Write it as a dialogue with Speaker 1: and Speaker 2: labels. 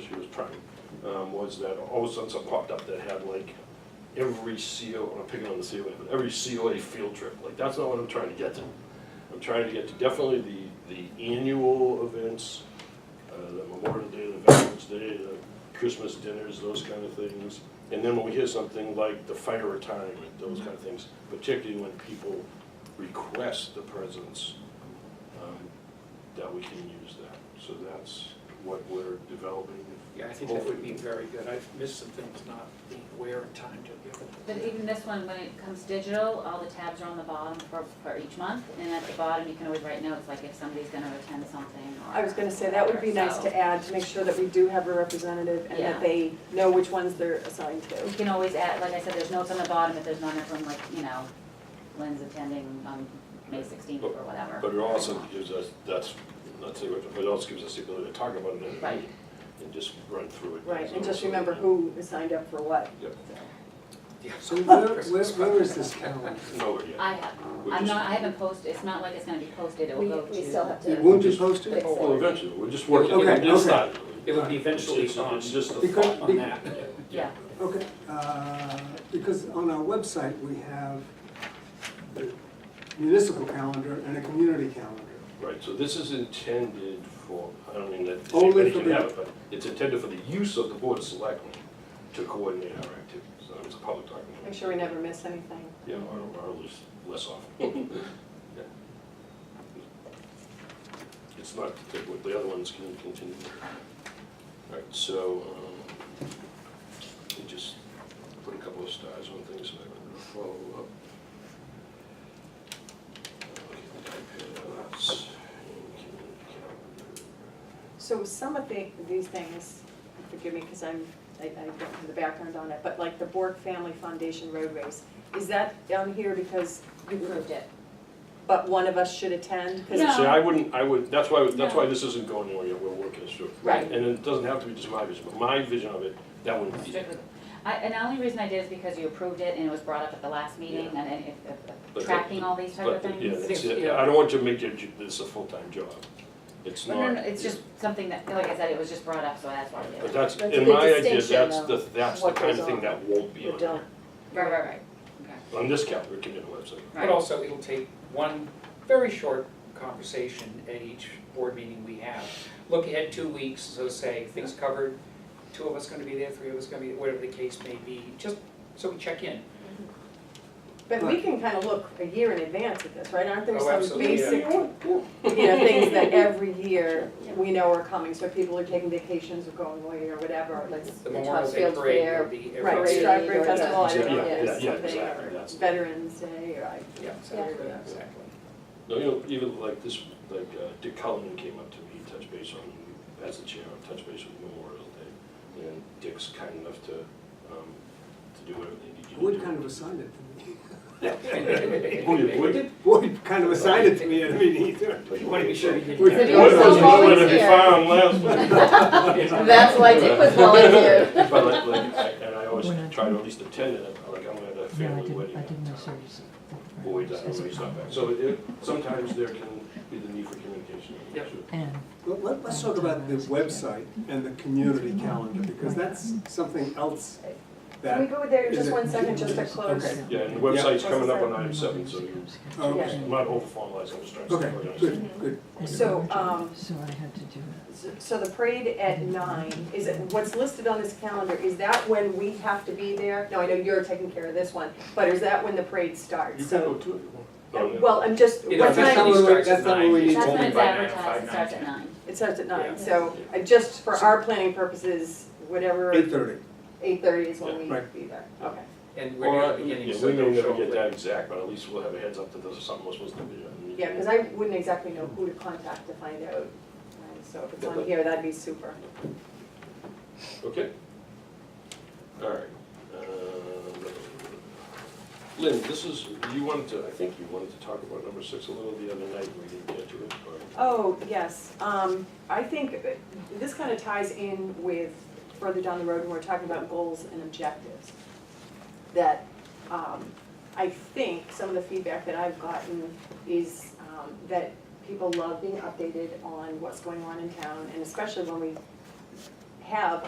Speaker 1: she was trying, um, was that all of a sudden something popped up that had like every CO, I'm not picking on the COA, but every COA field trip, like, that's not what I'm trying to get to. I'm trying to get to definitely the, the annual events, uh, the Memorial Day, the Veterans Day, the Christmas dinners, those kind of things. And then when we hear something like the fire retirement, those kind of things, particularly when people request the presence, um, that we can use that. So that's what we're developing.
Speaker 2: Yeah, I think that would be very good. I've missed some things not being aware in time to give it.
Speaker 3: But even this one, when it comes digital, all the tabs are on the bottom for, for each month, and at the bottom, you can always write notes, like if somebody's gonna attend something or.
Speaker 4: I was gonna say, that would be nice to
Speaker 3: whatever.
Speaker 4: add, to make sure that we do have a representative and
Speaker 3: Yeah.
Speaker 4: that they know which ones they're assigned
Speaker 3: So, We
Speaker 4: to.
Speaker 3: can always add, like I said, there's notes on the bottom if there's none of them, like, you know, Lynn's attending on May sixteenth or whatever.
Speaker 1: But it also gives us, that's, not saying, but it also gives us the ability to talk about it in a
Speaker 3: Right.
Speaker 1: meeting and just run through it.
Speaker 4: Right, and
Speaker 1: So-
Speaker 4: just remember who is signed up for what.
Speaker 1: Yep.
Speaker 2: Yeah,
Speaker 5: So where, where, where is this calendar?
Speaker 1: Nowhere yet.
Speaker 3: I have,
Speaker 1: We're
Speaker 3: I'm
Speaker 1: just-
Speaker 3: not, I haven't posted, it's not like it's gonna be posted, it
Speaker 4: We-
Speaker 3: will go to.
Speaker 4: we still have to-
Speaker 5: It won't be posted?
Speaker 4: Fix
Speaker 1: Well,
Speaker 4: it.
Speaker 1: eventually, we're just working
Speaker 5: Okay,
Speaker 1: on this
Speaker 5: okay.
Speaker 1: side.
Speaker 2: It would be eventually
Speaker 1: It's-
Speaker 2: on,
Speaker 1: It's just the
Speaker 5: Because-
Speaker 1: thought.
Speaker 2: on that.
Speaker 3: Yeah,
Speaker 5: Okay, uh, because on our website, we have the municipal calendar and a community calendar.
Speaker 1: Right, so this is intended for, I don't mean that
Speaker 5: Only
Speaker 1: anybody
Speaker 5: for
Speaker 1: can
Speaker 5: the-
Speaker 1: have it, but it's intended for the use of the board of selectmen to coordinate our activities. So it's a public
Speaker 4: Make
Speaker 1: document,
Speaker 4: sure we never miss anything.
Speaker 1: yeah, or, or less, less often. Yeah. It's not, the- the other ones can continue. All right, so, um, we just put a couple of stars on things that I'm gonna follow up. Okay, iPads, and calendar.
Speaker 4: So some of the, these things, forgive me, because I'm, I, I don't have the background on it, but like the Bork Family Foundation Road Race, is that on here because,
Speaker 3: you proved it.
Speaker 4: but one of us should attend? 'Cause-
Speaker 3: No.
Speaker 1: See, I wouldn't, I would, that's why, that's why this isn't going anywhere yet, we're working this through.
Speaker 4: Right.
Speaker 1: And it doesn't have to be just my vision, but my vision of it, that wouldn't be it.
Speaker 3: Strictly. I, and the only reason I did is because you approved it and it was brought up at the last meeting and then if- if,
Speaker 1: But-
Speaker 3: if tracking all these type
Speaker 1: But,
Speaker 3: of things.
Speaker 1: yeah, that's it. I don't want you to make it, this a full-time job. It's
Speaker 3: No,
Speaker 1: not.
Speaker 3: no, no, it's just something that, like I said, it was just brought up, so that's why I did
Speaker 1: But
Speaker 3: it.
Speaker 1: that's,
Speaker 4: That's a
Speaker 1: in
Speaker 4: big
Speaker 1: my idea,
Speaker 4: distinction,
Speaker 1: that's
Speaker 4: though,
Speaker 1: the, that's the
Speaker 4: what
Speaker 1: kind of
Speaker 4: goes
Speaker 1: thing
Speaker 4: on.
Speaker 1: that won't be
Speaker 4: We're
Speaker 1: on here.
Speaker 4: done.
Speaker 3: Right, right, right, okay,
Speaker 1: On this calendar, it can be on the website.
Speaker 2: But
Speaker 3: right,
Speaker 2: also, it'll take one very short conversation at each board meeting we have. Look ahead two weeks, so say, things covered, two of us gonna be there, three of us gonna be, whatever the case may be, just so we check in.
Speaker 4: But we can kind of look a year in advance at this, right? Aren't there
Speaker 2: Oh,
Speaker 4: some
Speaker 2: absolutely, yeah.
Speaker 4: basic, you know, things that every year we know are coming? So people are taking vacations or going away or whatever, like
Speaker 2: The
Speaker 4: the
Speaker 2: Memorial Day
Speaker 4: Topsfield
Speaker 2: parade will
Speaker 4: Fair.
Speaker 2: be every
Speaker 4: Right,
Speaker 2: year.
Speaker 4: Strawberry
Speaker 3: Parade or
Speaker 4: Festival, I
Speaker 1: something.
Speaker 4: don't know,
Speaker 1: Yeah,
Speaker 4: yeah,
Speaker 1: yeah,
Speaker 4: something,
Speaker 1: exactly,
Speaker 4: or
Speaker 1: that's-
Speaker 4: Veterans Day, or I,
Speaker 2: Yeah, exactly, exactly.
Speaker 1: No, you know, even like this, like uh, Dick Cullen came up to me, touch base on, as the chair, touch base with Memorial Day. And Dick's kind enough to, um, to do whatever they need you to do.
Speaker 5: Boyd kind of assigned it to me.
Speaker 1: Would, would it?
Speaker 5: Boyd kind of assigned it to me, I mean, either.
Speaker 2: But you wanna be sure you
Speaker 5: We-
Speaker 2: didn't.
Speaker 5: There was no
Speaker 4: volunteer.
Speaker 1: Would it be found last?
Speaker 4: That's why Dick was volunteered.
Speaker 1: But like, like, I- and I always
Speaker 6: When I-
Speaker 1: try to at least attend it, like I'm at a
Speaker 6: No, I
Speaker 1: family
Speaker 6: didn't,
Speaker 1: wedding.
Speaker 6: I did my
Speaker 1: at the time.
Speaker 6: service.
Speaker 1: Boyd's, I don't know, he's not back. So it, sometimes there can be the need for communication.
Speaker 2: Yep.
Speaker 6: And
Speaker 5: Well, let- Let's talk about the website and the community calendar, because that's something else
Speaker 4: Can we
Speaker 5: that,
Speaker 4: go there just
Speaker 5: Is it-
Speaker 4: one second, just to close?
Speaker 5: Okay.
Speaker 1: Yeah, and the website's coming up on
Speaker 6: I'm
Speaker 1: item seven,
Speaker 6: seven,
Speaker 1: so you,
Speaker 5: okay,
Speaker 1: I'm not over formalizing, I'm just trying to.
Speaker 5: okay, good, good.
Speaker 4: So, um,
Speaker 6: So I had to do it.
Speaker 4: So the parade at nine, is it, what's listed on this calendar, is that when we have to be there? Now, I know you're taking care of this one, but is that when the parade
Speaker 1: You
Speaker 4: starts?
Speaker 1: can
Speaker 4: So,
Speaker 1: go to it if you want. Oh, yeah.
Speaker 4: Well, I'm just,
Speaker 2: It
Speaker 4: what
Speaker 5: that's
Speaker 2: officially
Speaker 5: not
Speaker 4: time,
Speaker 5: what we-
Speaker 2: starts at
Speaker 5: that's not
Speaker 2: nine.
Speaker 5: what we
Speaker 2: It's
Speaker 5: need.
Speaker 3: that's
Speaker 2: only
Speaker 3: when it's
Speaker 2: by nine, five,
Speaker 3: advertised, it
Speaker 2: nine,
Speaker 3: starts at
Speaker 2: ten.
Speaker 3: nine.
Speaker 4: it starts at nine,
Speaker 2: Yeah.
Speaker 4: so I just, for our planning purposes, whatever,
Speaker 5: Eight thirty.
Speaker 4: eight thirty is when we
Speaker 5: Right.
Speaker 4: be there, okay.
Speaker 2: And we're
Speaker 1: Or,
Speaker 2: not beginning,
Speaker 1: yeah,
Speaker 2: so
Speaker 1: we may
Speaker 2: don't show
Speaker 1: never
Speaker 2: up
Speaker 1: get
Speaker 2: late.
Speaker 1: that exact, but at least we'll have a heads up that there's something was supposed to be. done.
Speaker 4: Yeah, because I wouldn't exactly know who to contact to find out, Um, so if it's on here, that'd be super.
Speaker 1: Okay. All right. Uh, Lynn, this is, you wanted to, I think you wanted to talk about number six a little the other night, we didn't get to it, or?
Speaker 4: Oh, yes, um, I think uh, this kind of ties in with further down the road when we're talking about goals and objectives. That, um, I think some of the feedback that I've gotten is, um, that people love being updated on what's going on in town, and especially when we have